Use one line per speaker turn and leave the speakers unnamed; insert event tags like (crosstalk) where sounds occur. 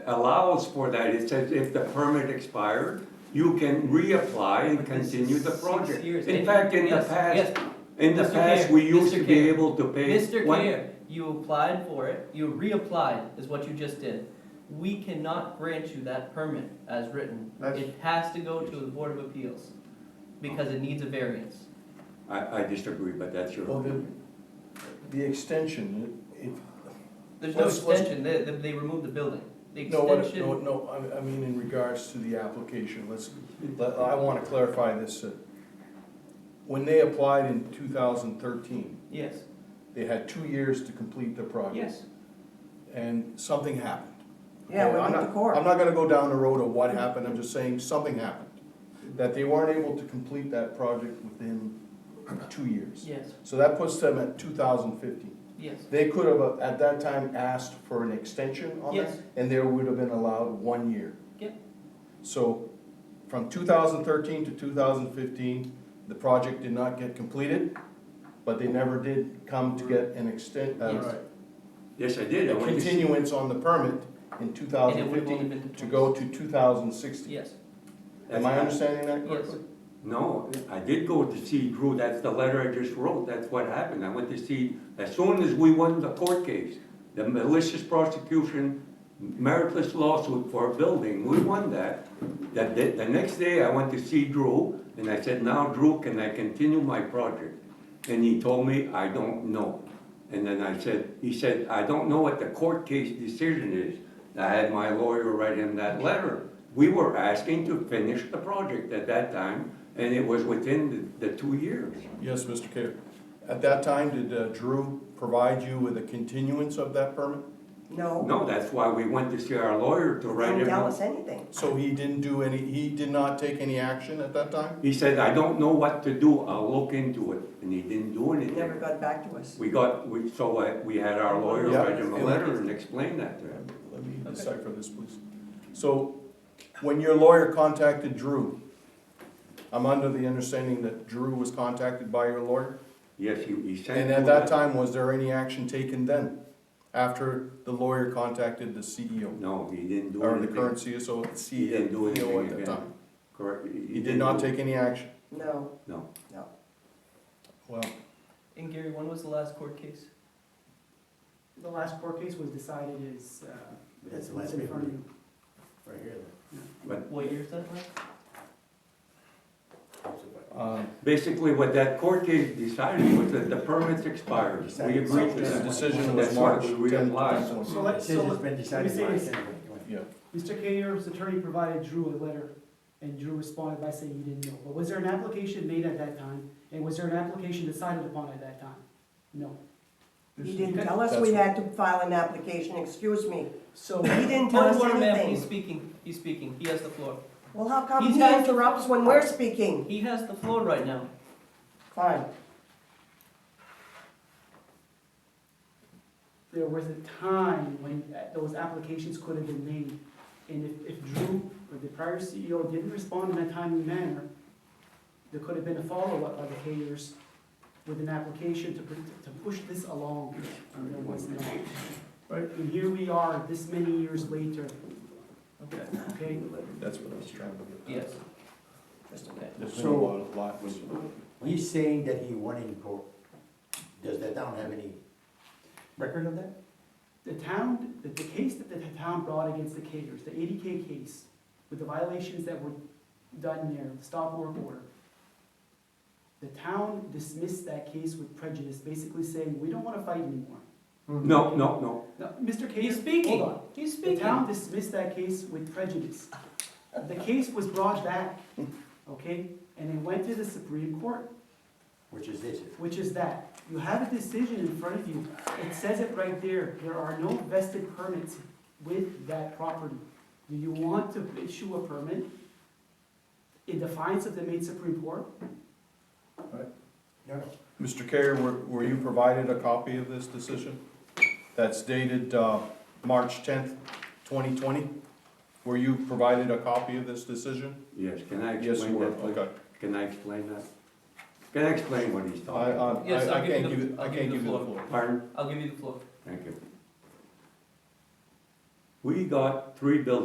allows for that. It says if the permit expired, you can reapply and continue the project.
Six years. eh?
In fact, in the
Yes, yes.
past, in the
Mr.
past,
Mayor,
we used
Mr.
to be
Mayor,
able to pay.
Mr.
one-
Mayor, you applied for it, you reapplied, is what you just did. We cannot grant you that permit as written.
That's-
It has to go to the Board of Appeals, because it needs a variance.
I, I disagree, but that's your.
Well, the,
opinion.
the extension, if,
There's no
Let's- let's-
extension, they, they- they removed the building. The
no, what- no,
extension,
no, I- I mean in regards to the application, let's, let- I want to clarify this. uh, When they applied in 2013,
yes,
they had two years to complete the project.
yes.
And something happened.
Yeah,
Okay,
we
I'm
went to
not-
court.
I'm not gonna go down the road of what happened, I'm just saying something happened. That they weren't able to complete that project within two years.
Yes,
So that puts them at 2015.
yes.
They could have, uh, at that time, asked for an extension on that,
Yes.
and there would have been allowed one year.
Yep.
So, from two thousand thirteen to two thousand fifteen, the project did not get completed, but they never did come to get an extent,
Yes.
uh,
Yes, I did. I
a
went to-
continuance on the permit in two
And
thousand
it would have only
fifteen
been.
to go to two thousand sixteen.
Yes,
Am I understanding that
yes.
correctly?
No, I did go to see Drew, that's the letter I just wrote, that's what happened, I went to see, as soon as we won the court case, the malicious prosecution, meritless lawsuit for a building, we won that. The, the, the next day, I went to see Drew, and I said, now Drew, can I continue my project? And he told me, I don't know. And then I said, he said, I don't know what the court case decision is. I had my lawyer write him that letter. We were asking to finish the project at that time, and it was within the, the two years.
Yes, Mr. Kerr. At that time, did uh, Drew provide you with a continuance of that permit?
No,
Oh, No, that's why we went to see our lawyer to write
didn't
him.
tell
up.
us anything.
So he didn't do any, he did not take any action at that time?
He said, I don't know what to do, I'll look into it, and he didn't do
He never
anything.
got back to us.
We got, we, so uh, we had our lawyer
Yeah.
write him a letter and explain that to him.
Let me
Okay.
decipher this, please. So, when your lawyer contacted Drew, I'm under the understanding that Drew was contacted by your lawyer?
Yes, he, he sent.
And
me
at that time, was there any action taken then, after the lawyer contacted the CEO?
No, he didn't do
Or the
anything.
current E CSO,
He didn't do
CEO
anything
E at that
again.
time?
Correct.
He did not
do-
take any action?
No,
No.
no.
Well,
And Gary, when was the last court case?
The last court case was decided is, uh,
That's
it's
the last
in
paper,
front of you.
right here,
What year is that last?
that.
uh,
Basically, what that court case decided was that the permits expired. We agreed to
this
that.
decision
That's
was
why
March
we
10th,
reapplied.
2021.
So let, so
Decision's
let-
been decided
let
by
me say
anyway, go ahead.
Yeah.
Mr. Kayer's attorney provided Drew a letter, and Drew responded by saying he didn't know. But was there an application made at that time, and was there an application decided upon at that time? No.
He didn't tell us we had to file an application, excuse me.
(laughs)
(clears throat)
So,
He didn't tell us
Point of order, ma'am. He's
anything.
speaking, he's speaking, he has the floor.
Well, how come
He's
he
had-
interrupts when we're speaking?
He has the floor right now.
Fine.
there was a time when uh, those applications could have been made. And if, if Drew or the prior CEO didn't respond in a timely manner, there could have been a follow-up by the Kayers with an application to, pr- to push this along, and there was not. Right, and here we are, this many years later,
Okay.
okay?
That's what I was trying to get.
Yes,
Just a
okay.
There's been a
So-
lot of lot-
He's saying that he won in court, does that town have any record of that?
The town, the, the case that the town brought against the Kayers, the eighty K case, with the violations that were done there, the stop work order, the town dismissed that case with prejudice, basically saying, we don't wanna fight anymore.
No, no, no.
Now,
He's
Mr. Kayer, hold
speaking,
on.
he's
The town
speaking.
dismissed that case with prejudice. The case was brought back, okay, and it went to the Supreme Court.
Which is this,
which is that you have a decision in front of you. It says it right there, there are no vested permits with that property. Do you want to issue a permit in defiance of the Maine Supreme Court?
no, no,
Mr. Carrier, were, were you provided a copy of this decision? That's dated, uh, March tenth, twenty twenty? Were you provided a copy of this decision?
Yes, can I
Yes, you
explain
were,
that? please?
okay.
Can I explain that? Can I explain what he's
I,
talking
I,
about?
Yes,
I- I
I'll give
can't
you the-
give, it- I
I'll
can't give you the floor.
Pardon?
I'll give you the floor.
Thank you. We got three buildings